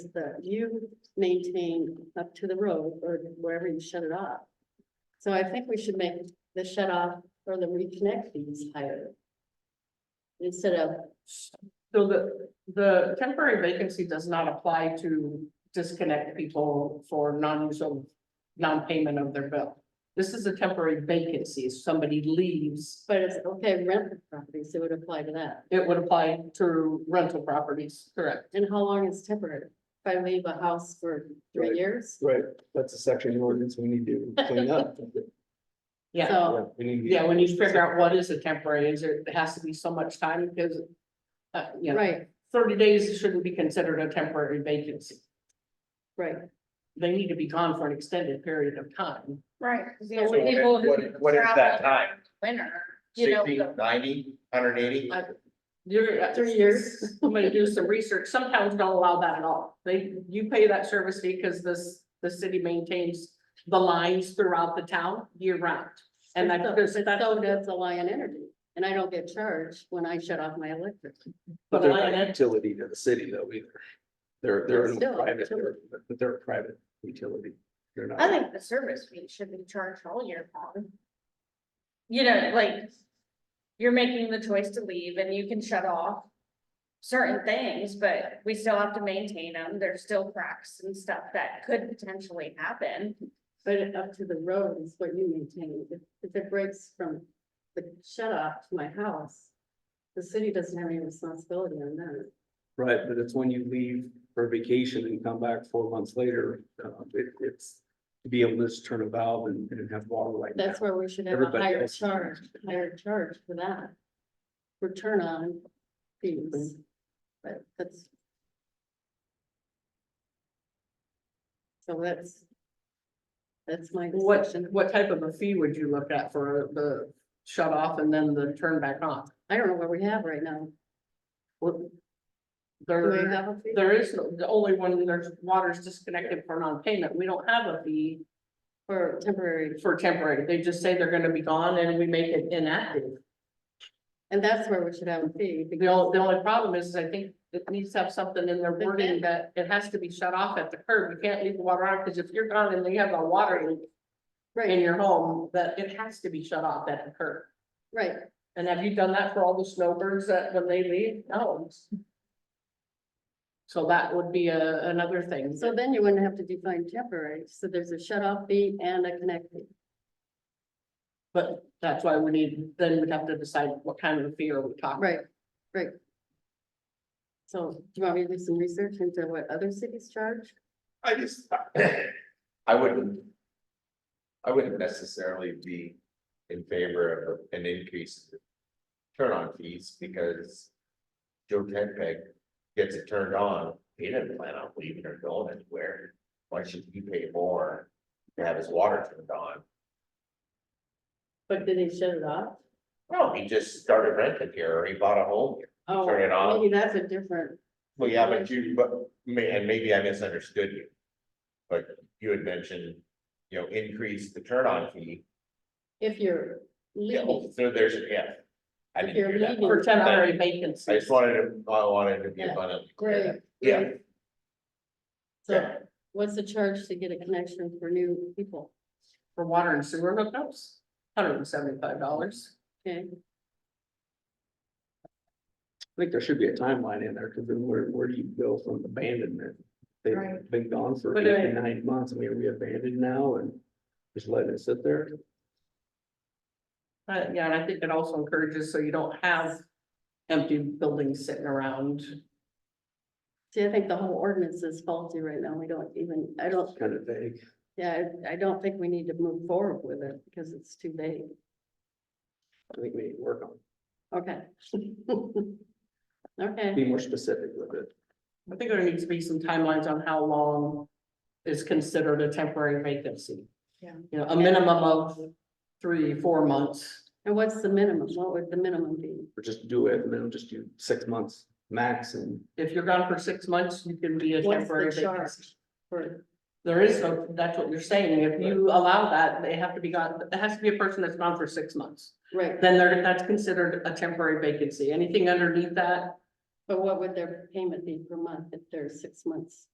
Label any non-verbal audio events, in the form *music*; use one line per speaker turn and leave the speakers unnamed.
that you maintain up to the road or wherever you shut it off. So I think we should make the shut off or the reconnect fees higher. Instead of,
So the, the temporary vacancy does not apply to disconnect people for non-use of, non-payment of their bill. This is a temporary vacancy, if somebody leaves,
but it's okay, rent the properties, it would apply to that.
it would apply to rental properties, correct?
And how long is temporary? If I leave a house for three
Right.
years?
Right, that's a section of the ordinance we need to clean up.
Yeah,
So,
We need to-
yeah, when you figure out what is a temporary, is there, it has to be so much time, because uh, you know,
right,
thirty days shouldn't be considered a temporary vacancy.
right.
They need to be gone for an extended period of time.
Right. 'cause the
So
only
what-
people who
what- what is that
travel
time?
Winter, you know.
Sixty, ninety, hundred eighty?
I- You're.
Three years.
I'm gonna do some research. Some towns don't allow that at all. They, you pay that service fee because this, the city maintains the lines throughout the town year round. And that,
But
because
so- But
that's,
so does Alliant Energy, and I don't get charged when I shut off my electric.
But
but
they're
I-
not a utility to the city though either. They're, they're in
Still,
a private,
utility.
they're- but they're a private utility. They're
I
not,
think the service fee should be charged all year long. You know, like, you're making the choice to leave and you can shut off certain things, but we still have to maintain them. There's still cracks and stuff that could potentially happen.
But up to the road is what you maintain. If, if it breaks from the shut off to my house, the city doesn't have any responsibility on that.
right, but it's when you leave for vacation and come back four months later, uh, it, it's. To be able to just turn a valve and, and have water like that.
That's where we should have a
Everybody
higher
else.
charge, higher charge for that. Return on fees, but that's. So that's. That's my
what,
discussion.
what type of a fee would you look at for the shut off and then the turn back on?
I don't know what we have right now.
What-
Do we
There,
have a fee?
there is, no- the only one, there's water's disconnected for non-payment. We don't have a fee
For temporary,
for temporary. They just say they're gonna be gone and we make it inactive.
and that's where we should have a fee.
The
because-
only, the only problem is, is I think it needs to have something in their wording that it has to be shut off at the curb. You can't leave the water on, because if you're gone and you have a water leak in
Right,
your home, that it has to be shut off at the curb.
right.
And have you done that for all the snowbirds that when they leave? No. So that would be a, another thing.
So then you wouldn't have to define temporary, so there's a shut off fee and a connect fee.
But that's why we need, then we'd have to decide what kind of a fee are we talking.
Right, right. So do you want me to do some research into what other cities charge?
I just. *coughs* I wouldn't. I wouldn't necessarily be in favor of an increase. in Turn on fees because. Joe Tenpeg gets it turned on, he didn't plan on leaving or going anywhere. Why should he pay more to have his water turned on?
But did they shut it off?
No, he just started renting here or he bought a home here.
Oh,
Turn it off.
Maybe that's a different,
Well, yeah, but you, but, may, and maybe I misunderstood you. But you had mentioned, you know, increase the turn on fee.
if you're
Yeah, well,
leaving,
so there's, an yeah. I didn't
If you're
hear that.
leaving-
For
part.
temporary
I
vacancies.
just wanted to, I wanted to be
Yeah.
abundant.
great.
Yeah.
great. So
Yeah,
what's the charge to get a connection for new people?
For water and sewer hookups, hundred and seventy-five dollars.
Okay,
I think there should be a timeline in there, because then where, where do you go from abandonment? They've
Right.
been gone for
But
eight
I-
to nine months, I mean, are we abandoned now and just letting it sit there?
Uh, yeah, and I think it also encourages, so you don't have empty buildings sitting around.
see, I think the whole ordinance is faulty right now, we don't even, I don't,
It's Kind of vague.
yeah, I I don't think we need to move forward with it, because it's too vague.
I think we need to work on,
Okay. *laughs*
it.
Okay,
be more specific with it.
I think there needs to be some timelines on how long is considered a temporary vacancy.
Yeah.
You know, a minimum of three, four months.
and what's the minimum? What would the minimum be?
Or just do it, and then just do six months max and
If you're gone for six months, you can be a
What's
temporary
the
vacancy.
charge? For,
There is no, that's what you're saying. If you allow that, they have to be gone, it has to be a person that's gone for six months.
right,
Then they're, that's considered a temporary vacancy. Anything underneath that
but what would their payment be per month if they're six months